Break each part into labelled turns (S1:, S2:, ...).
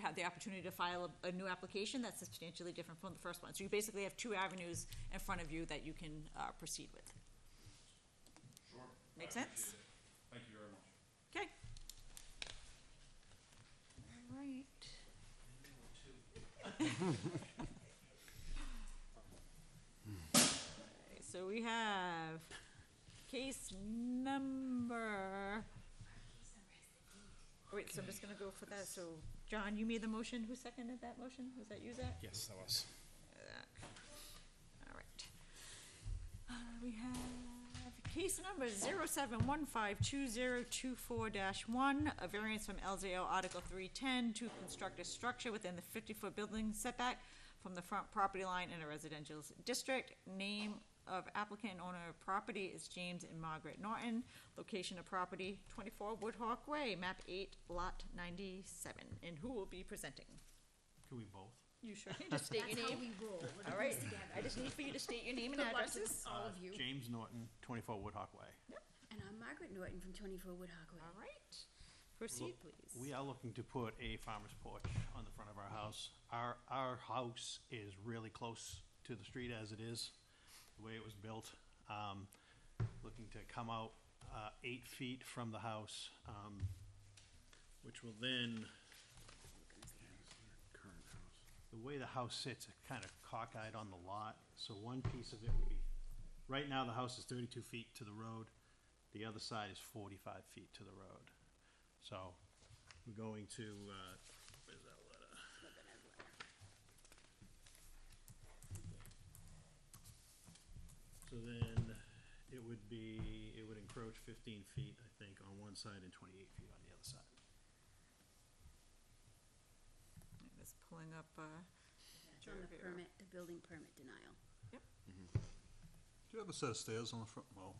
S1: have the opportunity to file a, a new application that's substantially different from the first one. So you basically have two avenues in front of you that you can, uh, proceed with.
S2: Sure.
S1: Make
S2: I appreciate
S1: sense?
S2: it. Thank you very much.
S1: Okay. All right. Okay, So we have case number. Wait, so I'm just gonna go for that. So, John, you made the motion. Who seconded that motion? Was that you, Zach?
S3: Yes, that was.
S1: All right. Uh, We have case number 07152024-1, a variance from LZO Article 310 to construct a structure within the 50-foot building setback from the front property line in a residential s- district. Name of applicant and owner of property is James and Margaret Norton. Location of property, 24 Woodhawk Way, map 8, lot 97. And who will be presenting?
S4: Can we both?
S1: You sure can just state your
S5: That's how
S1: name.
S5: we roll. We're
S1: All
S5: doing
S1: right,
S5: this together.
S1: I just need for you to state your name and
S5: Good luck to
S1: addresses.
S5: all of you.
S4: Uh, James Norton, 24 Woodhawk Way.
S5: And I'm Margaret Norton from 24 Woodhawk Way.
S1: All
S4: Oh,
S1: right, proceed, please.
S4: We are looking to put a farmer's porch on the front of our house. Our, our house is really close to the street as it is, the way it was built. Um, Looking to come out uh, eight feet from the house, um, which will then,
S3: Current house.
S4: the way the house sits, it's kind of cockeyed on the lot, so one piece of it would be, right now, the house is thirty-two feet to the road, the other side is forty-five feet to the road. So, we're going to, uh, where's that letter? So then, it would be, it would encroach fifteen feet, I think, on one side and twenty-eight feet on the other side.
S1: Just pulling up, uh,
S5: It's on the
S1: Sure.
S5: permit, the building permit denial.
S3: Do you have a set of stairs on the front? Well,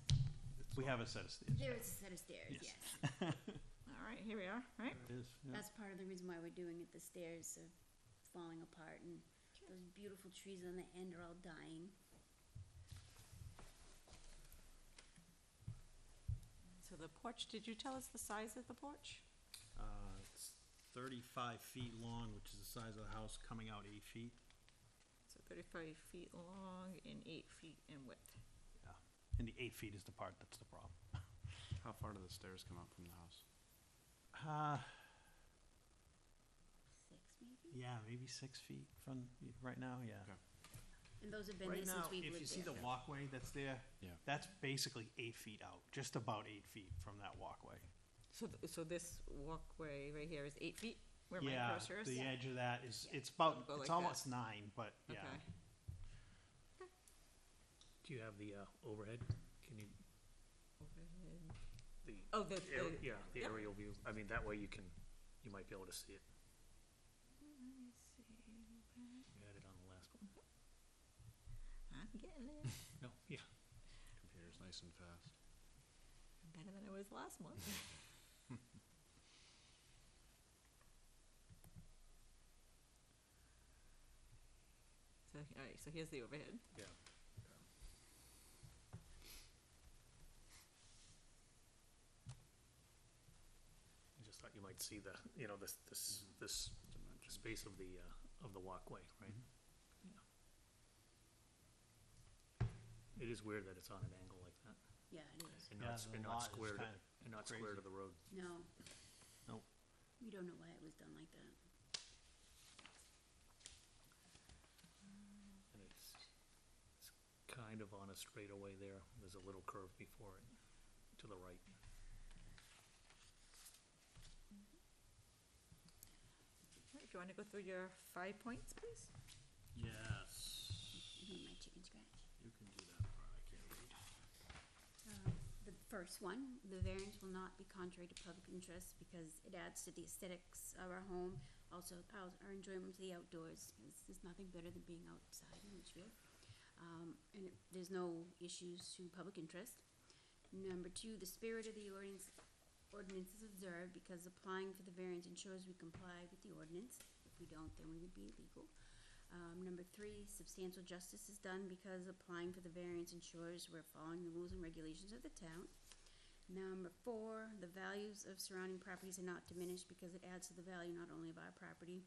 S4: We have a set of stairs.
S5: There is a set of stairs, yes.
S1: all right, here we are, right?
S4: It is, yeah.
S5: That's part of the reason why we're doing it. The stairs are falling apart and those beautiful trees on the end are all dying.
S1: So the porch, did you tell us the size of the porch?
S4: Uh, it's thirty-five feet long, which is the size of the house, coming out eight feet.
S1: So thirty-five feet long and eight feet in width.
S4: Yeah. And the eight feet is the part that's the problem.
S6: How far do the stairs come up from the house?
S4: Uh,
S5: Six maybe?
S4: yeah, maybe six feet from, right now, yeah.
S6: Okay.
S5: And those have been
S4: Right
S5: there
S4: now,
S5: since we've
S4: if you
S5: lived
S4: see the
S5: there.
S4: walkway that's there,
S6: Yeah.
S4: that's basically eight feet out, just about eight feet from that walkway.
S1: So, th- so this walkway right here is eight feet, where my
S4: Yeah,
S1: cursor is?
S4: the edge of that is,
S5: Yeah.
S4: it's about,
S1: Go like
S4: it's
S1: that.
S4: almost nine, but
S1: Okay.
S4: yeah.
S7: Do you have the uh, overhead? Can you,
S1: Overhead.
S7: the?
S1: Oh, the-
S7: aer-
S1: the-
S7: Yeah, the
S1: yep.
S7: aerial view. I mean, that way you can, you might be able to see it. You had it on the last one.
S1: I'm getting it,
S7: No, yeah.
S6: Computer's nice and fast.
S1: better than I was last month. So, all right, so here's the overhead.
S7: Yeah. I just thought you might see the, you know, this, this, this space of the, uh, of the walkway, right? Yeah. It is weird that it's on an angle like that.
S5: Yeah, it is.
S7: And
S4: Yeah,
S7: not, s-
S4: the
S7: and
S4: lot
S7: not
S4: is
S7: squared,
S4: kinda
S7: and not square
S4: crazy.
S7: to the road.
S5: No,
S4: Nope.
S5: we don't know why it was done like that.
S7: And it's, it's kind of on a straightaway there. There's a little curve before it, to the right.
S1: All right, If you want to go through your five points, please?
S4: Yes,
S5: I mean, my chicken scratch.
S4: you can do that part, I can't read.
S5: uh, The first one, the variance will not be contrary to public interest because it adds to the aesthetics of our home, also our our enjoyment of the outdoors, because there's nothing better than being outside in Litchfield. Um, and it- there's no issues to public interest. Number two, the spirit of the ordinance, ordinance is observed because applying for the variance ensures we comply with the ordinance. If we don't, then we would be illegal. Um, number three, substantial justice is done because applying for the variance ensures we're following the rules and regulations of the town. Number four, the values of surrounding properties are not diminished because it adds to the value not only of our property,